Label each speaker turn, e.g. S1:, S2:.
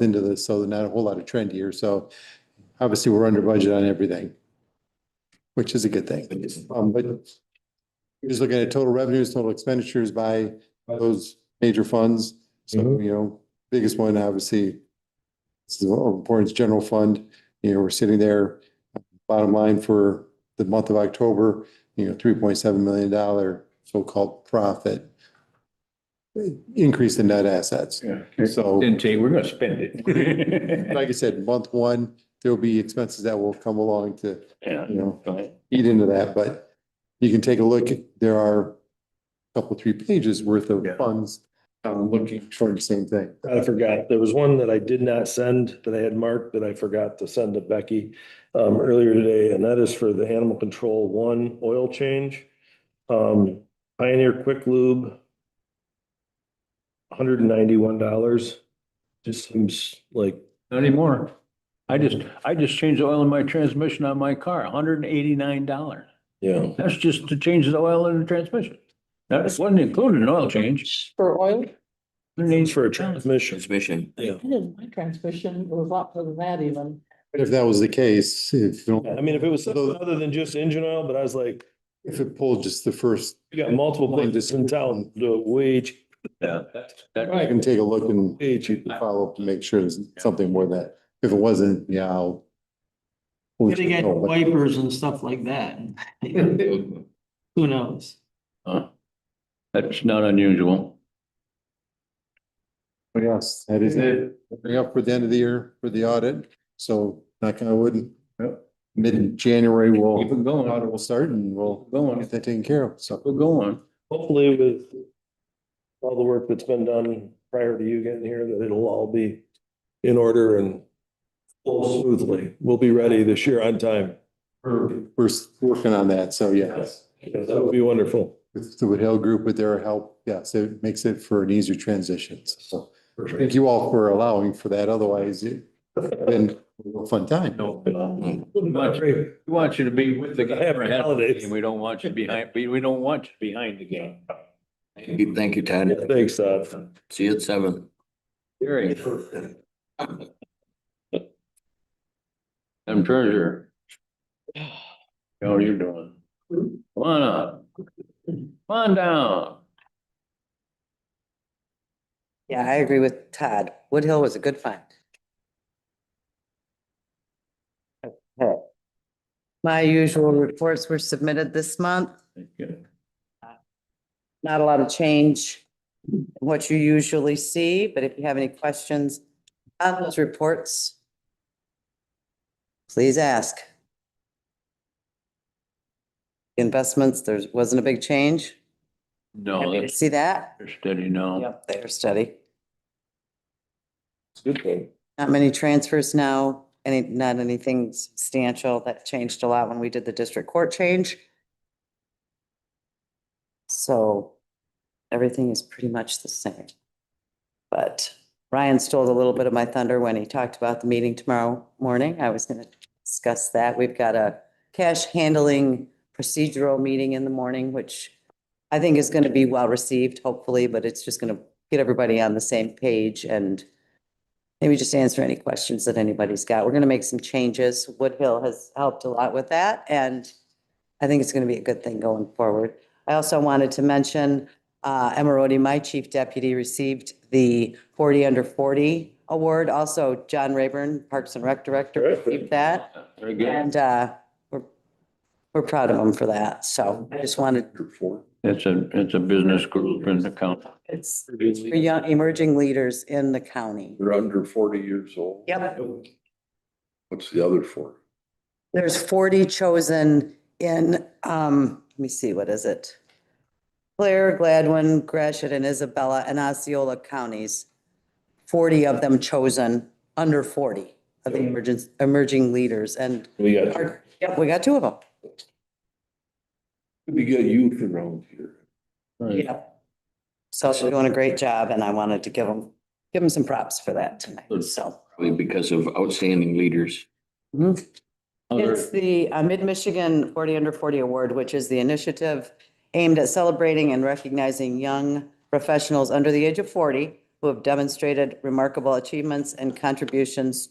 S1: into this, so not a whole lot of trend here. So obviously, we're under budget on everything, which is a good thing. Um, but you're just looking at total revenues, total expenditures by those major funds. So,
S2: Mhm.
S1: you know, biggest one, obviously, this is our importance general fund. You know, we're sitting there, bottom line for the month of October, you know, three point seven million dollar so-called profit increase in net assets. So-
S3: Didn't say, we're gonna spend it.
S1: Like I said, month one, there'll be expenses that will come along to,
S3: Yeah.
S1: you know,
S3: Right.
S1: eat into that, but you can take a look, there are a couple, three pages worth of
S3: Yeah. Mm-hmm.
S1: funds, um, looking toward the same thing.
S2: I forgot. There was one that I did not send that I had marked that I forgot to send to Becky um, earlier today, and that is for the animal control one oil change. Um, Pioneer Quick Lube. Hundred and ninety-one dollars. Just seems like,
S3: Not anymore. I just, I just changed the oil in my transmission on my car, hundred and eighty-nine dollars.
S2: yeah,
S3: That's just to change the oil in the transmission. That wasn't included in oil change.
S4: For oil?
S2: needs for a transmission.
S5: transmission.
S2: Yeah.
S4: I didn't, my transmission was a lot better than that even.
S1: But if that was the case, if, you
S2: I
S1: don't-
S2: mean, if it was something other than just engine oil, but I was like,
S1: if it pulled just the first,
S2: you got multiple places in town, the wage,
S3: Yeah. that's- that-
S1: I can take a look and
S2: wage.
S1: follow up to make sure there's something more that, if it wasn't, yeah, I'll.
S6: Getting at wipers and stuff like that. Who knows?
S3: huh. That's not unusual.
S1: But yes, that is it. Bring up for the end of the year for the audit, so knock on wood.
S3: Yep.
S1: Mid-January, we'll,
S3: Keep it going.
S1: audit will start and we'll
S3: Going,
S1: get that taken care of, so.
S3: we're going.
S2: hopefully with all the work that's been done prior to you getting here, that it'll all be in order and flow smoothly. We'll be ready this year on time.
S1: We're, we're s- working on that, so yes,
S2: That would be wonderful.
S1: with the Wood Hill Group with their help, yes, it makes it for an easier transition, so. Thank you all for allowing for that, otherwise it been a fun time.
S3: No, We want you- we want you to be with the game.
S2: Happy holidays.
S3: We don't want you behind, we, we don't want you behind the game.
S5: Thank you, Todd.
S2: Thanks, Todd.
S5: See you at seven.
S3: Gary. I'm treasurer. How are you doing? Come on up. Come on down.
S7: Yeah, I agree with Todd. Woodhill was a good find. Okay. My usual reports were submitted this month. Not a lot of change in what you usually see, but if you have any questions on those reports, please ask. Investments, there wasn't a big change.
S3: No,
S7: Happy to
S3: that's
S7: see that.
S3: steady now.
S7: Yep, they're steady.
S3: Good thing.
S7: Not many transfers now, any, not anything substantial. That changed a lot when we did the district court change. So everything is pretty much the same. But Ryan stole a little bit of my thunder when he talked about the meeting tomorrow morning. I was going to discuss that. We've got a cash handling procedural meeting in the morning, which I think is going to be well received, hopefully, but it's just going to get everybody on the same page and maybe just answer any questions that anybody's got. We're going to make some changes. Woodhill has helped a lot with that, and I think it's going to be a good thing going forward. I also wanted to mention, uh, Emeraldi, my chief deputy, received the forty under forty award. Also, John Rayburn, Parks and Rec Director, received that.
S3: Very good.
S7: And uh, we're, we're proud of them for that. So I just wanted,
S3: It's a, it's a business group in the county.
S7: it's for young, emerging leaders in the county.
S8: They're under forty years old.
S7: Yep.
S8: What's the other four?
S7: There's 40 chosen in, um, let me see, what is it? Claire, Gladwin, Gresham, and Isabella and Osceola counties. 40 of them chosen, under 40 of the emergence, emerging leaders. And
S2: We got you.
S7: our- yep, we got two of them.
S8: We get youth around here.
S7: Yeah. So they're doing a great job and I wanted to give them, give them some props for that tonight,
S3: Good.
S7: so.
S5: Probably because of outstanding leaders.
S3: Other-
S7: It's the uh, Mid-Michigan Forty Under Forty Award, which is the initiative aimed at celebrating and recognizing young professionals under the age of forty who have demonstrated remarkable achievements and contributions